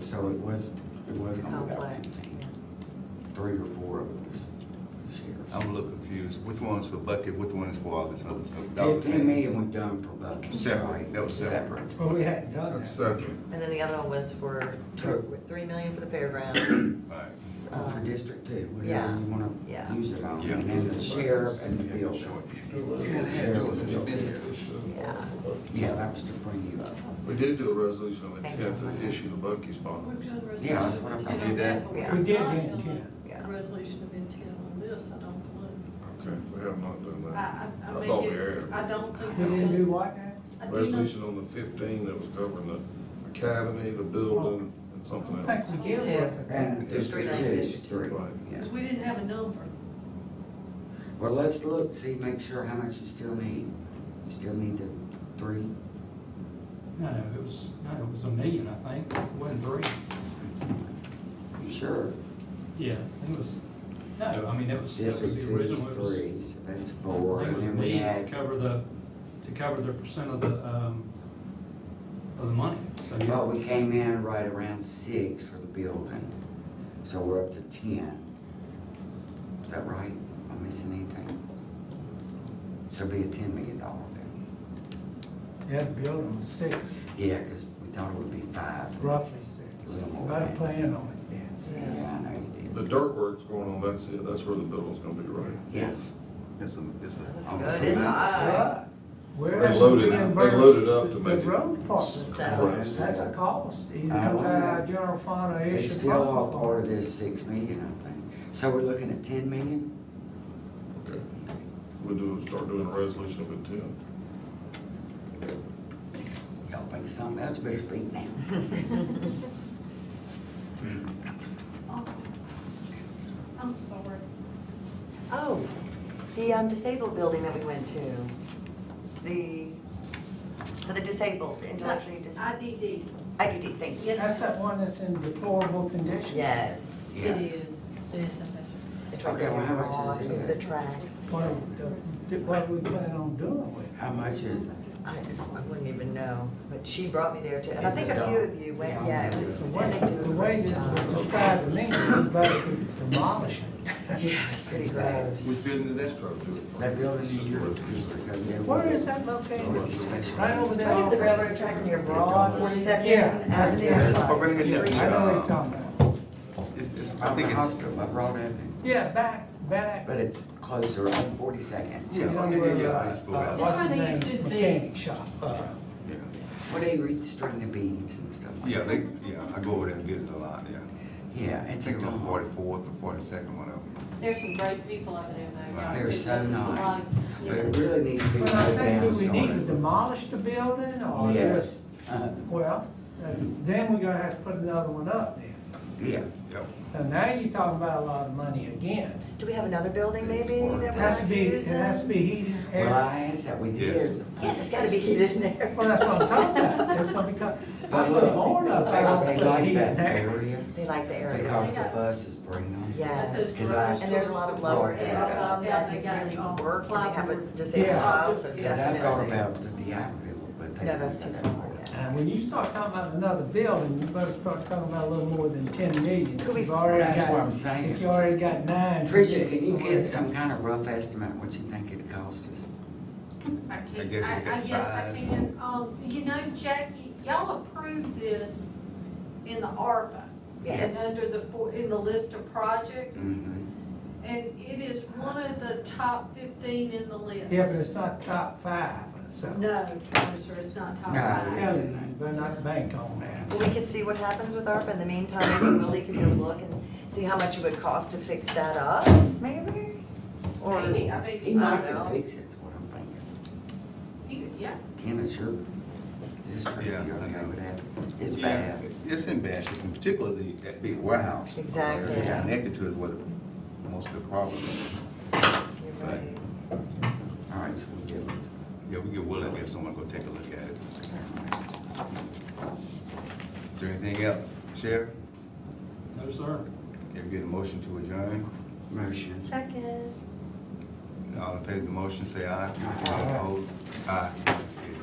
So it was, it was on the complex. balconies, three or four of the sheriffs. I'm a little confused. Which one's for bucket, which one is for all this other stuff? That was the Fifteen same. million we've done for Buckingham. Separate, that was separate. Separate. Well, we hadn't done That's uh, that. separate. And then the other one was for True. th- three million for the fairgrounds. Right. Well, For Um, District Two, Yeah. whatever you Yeah. wanna use it on, Yeah. and then the sheriff and the Yeah, building. sure. Yeah. Yeah, that was to bring you up. We did do a resolution of Thank intent you. to issue the Bucky's bond. Yeah, that's what I'm- I did that. Yeah. We did in ten. Yeah. A resolution of intent on this, I don't believe. Okay, we have not done I, that. I, I I mean, thought we it- had. I don't think. We didn't do what now? I do not- Resolution on the fifteen that was covering the academy, the building, and I something don't else. think we did Two. look at that. And District Two District is Two. three, Right. yeah. Cause we didn't have a number. Well, let's look, see, make sure how much you still need. You still need the three, No, it was, no, it was a million, I think, It wasn't three. you sure? Yeah, I think it was, no, I mean, that was, that was District the Two is original. It was- three, so that's I four, and think it was a then we million to add, cover the, to cover the percent of the, um, of the money. So, yeah. well, we came in right around six for the building, so we're up to ten. Is that right? Am I missing anything? So it'll be a ten million dollar bill. Yeah, the building was six, Yeah, cause we thought it would be five. roughly six. About a plan on it then. Yeah, I know you The did. dirt work's going on, that's it, that's where the building's gonna be, right? Yes, It's a, it's a. Looks on good. cement. It's high. Right. We're They loaded it- they reimbursed loaded up to the- make it- The road department, Correct. that's a cost, either I come don't out of know. our uh, general fund or issue. Uh, it's still all bonds. part of this six million, I think. So we're looking at ten million? Okay. We'll do, start doing a resolution of intent. Y'all think of something else, better speak now. I'm sorry. Oh, the um, disabled building that we went to, the, for the disabled, intellectually dis, IDD. IDD, thank you. That's that one that's in deplorable condition. Yes. Yeah. Yes. It's right Okay, there well, how much on is it? The tracks. What, are we do- what we plan on doing with it. How much is it? I, I wouldn't even know, but she brought me there too, and I It's think a a few dog. of you went, Yeah. yeah, it was, The and way, they do a the way great that it was job. described to me, was basically demolishing. Yeah, it's pretty It's gross. Which building is that? Try to do it first. That building It's in just a your resolution. district over there. Where is that Over located? the station. Right over there. Right at the railroad tracks near Broad, Forty Yeah. Second Avenue. Oh, right here, yeah. Street. I know what you're talking about. It's, it's, I Out in think the it's. hospital, by Broad Avenue, Yeah, back, back. but it's closer on Forty-second. Yeah, oh, yeah, yeah, yeah, I just go Uh, out. what's That's where the they used name? to be. Mechanic shop, uh, Yeah. Where they restring the beads and stuff like Yeah, that. they, yeah, I go over there and visit a lot, yeah. Yeah, I it's a think it's on dog. forty-fourth or forty-second, one of them. There's some great people over there, though. They're so There's a lot nice. of- It really needs to be but I put down think do we need to started. demolish the building or just, Yes, uh, well, uh, then we're gonna have to put another one up then. yeah, So now you're talking about a lot of money again. Do we have another building maybe that It we has want to to be, it use? has to in? be heated and well, air. I asked that we Yes. did. Yes, it's gotta be heated in there. Well, that's what I'm talking about, that's gonna be, co- But I'm look, born up there, I'm They gonna like heat that and air. area They like the area. because the buses bring them. Yes. Cause I- And there's a lot of lower Yeah. income that Yeah, they got really work when they have a plywood. disabled Yeah. child, so Cause I thought definitely. about the Diablo, but they. No, that's too think far, yeah. And when you start talking about another building, you better start talking about a little more than ten million. Could we- You've already That's got- what I'm saying. If you already got nine. Tricia, can you somewhere. give some kind of rough estimate what you think it cost us? I I can, guess I, we got I guess I size. can, um, you know, Jackie, y'all approved this in the ARPA. And Yes. under the, four- in the list of projects, Mm-hmm. Mhm. and it is one of the top fifteen in the list. Yeah, but it's not top five, so. No, no, sir, it's not top No, five. it Tell you, you better not bank on that. Well, we could see what happens with ARPA. In the meantime, maybe Willie could go look and see how much it would cost to fix that up, maybe? Or, Maybe, I mean, He I might don't could know. fix it, is what I'm thinking. You could- Yeah, Ken, it's your district, Yeah, you're I okay know. with that? It's Yeah, bad. It's in bad shape, and particularly that big warehouse. Exactly. It's connected to is where the, most of the problem is. you're right. All right, so we'll give it. Yeah, we get willing to have someone go take a look at it. Is there anything else? Sheriff, No, sir. if you get a motion to adjourn, Motion. Second. all in favor of the motion, say aye. Aye. All opposed? Aye. It's carried.